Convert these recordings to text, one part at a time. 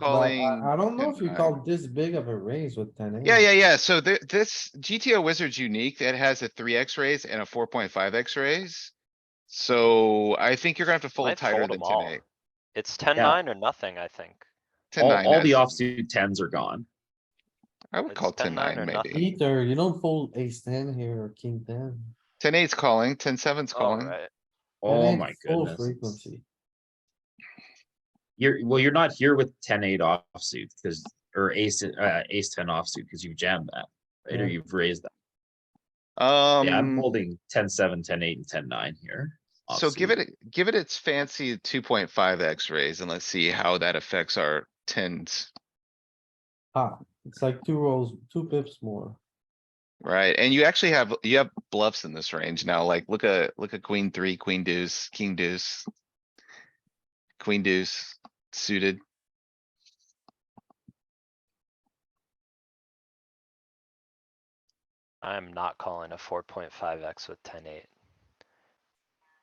But calling. I I don't know if you 10-9. call this big of a raise with ten eight. Yeah, yeah, yeah. So thi- this GTO wizard's unique. It has a three X raise and a four point five X raise. So I think you're gonna have to fold I'd tighter fold than them ten all. eight. It's ten nine or nothing, I think. Ten All, nine, all the that's- offsuit tens are gone. I would it's call 10-9 ten nine or maybe. nothing. Peter, you don't fold ace ten here or king ten. Ten eight's calling, ten seven's calling. Alright, Oh 10-8 my full goodness. Frequency. You're, well, you're not here with ten eight offsuit because, or ace, uh, ace ten offsuit because you've jammed that. Right, or Yeah. you've raised that. Yeah, I'm Um, holding ten seven, ten eight and ten nine here. so give offsuit. it, a- give it its fancy two point five X raise and let's see how that affects our tens. Ah, it's like two rolls, two pips more. Right, and you actually have, you have bluffs in this range now, like, look at, look at queen three, queen deuce, king deuce. Queen deuce suited, I'm not calling a four point five X with ten eight.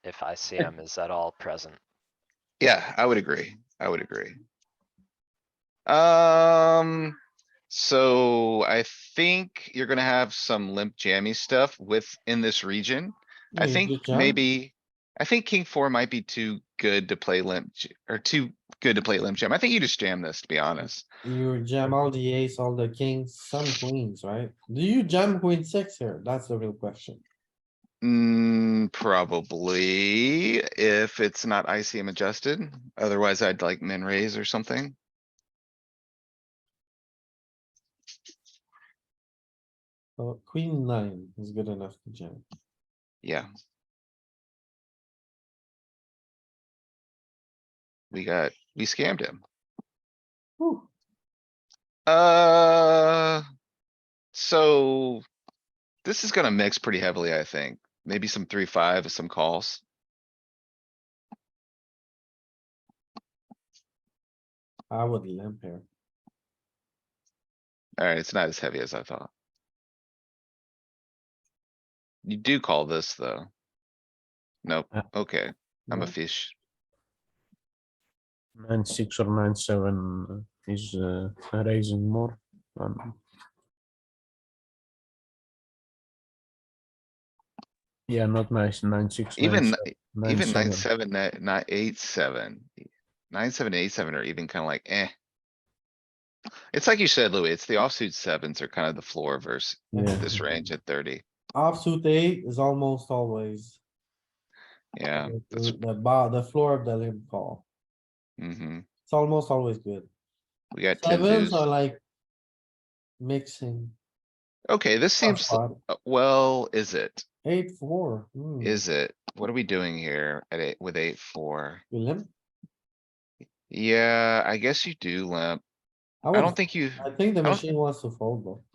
If ICM is at all present. yeah, I would agree, I would agree. Um, so I think you're gonna have some limp jammy stuff within this region. I Yeah, good think job. maybe, I think king four might be too good to play limp, j- or too good to play limp jam. I think you just jam this, to be honest. You jam all the ace, all the kings, some queens, right? Do you jam queen six here? That's the real question. Mm, probably if it's not ICM adjusted, otherwise I'd like min raise or something. So Oh, queen nine is good enough to jam. Yeah. We got, we scammed him. Whew. Uh. So. This is gonna mix pretty heavily, I think. Maybe some three, five, some calls. I would limp here. Alright, it's not as heavy as I thought. You do call this, though. Nope, Uh, okay, I'm a No? fish. Nine six or nine seven uh, is uh, raising more. Um, yeah, not nice. Nine six. Even, nine, se- even seven. nine, seven, ni- nine, eight, seven. Nine, seven, eight, seven are even kinda like eh. It's like you said, Louis, it's the offsuit sevens are kind of the floor versus Yeah. this range at thirty. Offsuit eight is almost always. Yeah, the- that's, The bar, the floor of the limp call. hmm It's almost always good. We got ten Sevens deuce. are like. Mixing. Okay, this tough seems, spot. uh, well, is it? Eight, four. hmm, Is it? What are we doing here at eight, with eight, four? you limp? Yeah, I guess you do limp. I would- don't think you, I think the don't- machine wants to fold though.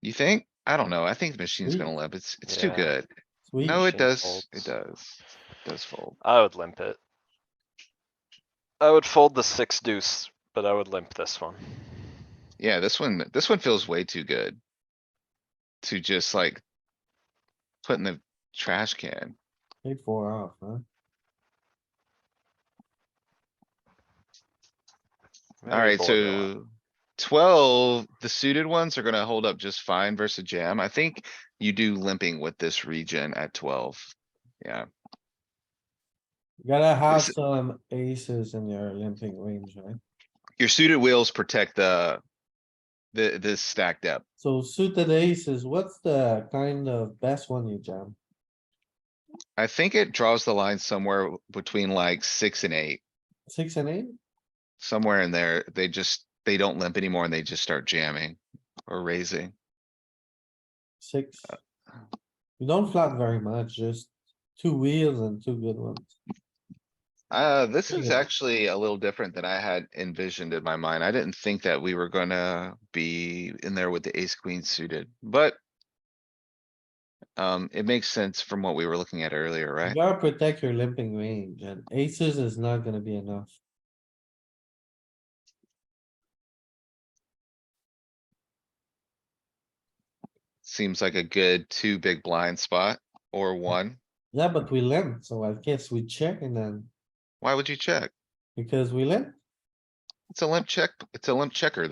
you think? I don't know. I think the machine's Ooh. gonna limp. It's, it's too Yeah. good. Sweet. No, it Machine does. It folds. does. It Does fold. I would limp it. I would fold the six deuce, but I would limp this one. Yeah, this one, this one feels way too good. To just like. Put in the trash can. Eight, four off, huh? Maybe Alright, fold that one. so. Twelve, the suited ones are gonna hold up just fine versus jam. I think you do limping with this region at twelve. Yeah, You Gotta have This- some aces in your limping range, right? your suited wheels protect the. The, this stacked up. So suited aces, what's the kind of best one you jam? I think it draws the line somewhere w- between like six and eight, Six and eight? somewhere in there. They just, they don't limp anymore and they just start jamming or raising. Six? You don't flat very much, just two wheels and two good ones. Uh, this is Yeah. actually a little different than I had envisioned in my mind. I didn't think that we were gonna be in there with the ace queen suited, but. Um, it makes sense from what we were looking at earlier, You right? gotta protect your limping range and aces is not gonna be enough. Seems like a good two big blind spot or one. Yeah, but we limp, so I guess we check and then, Why would you check? because we limp, It's a limp check, it's a limp checker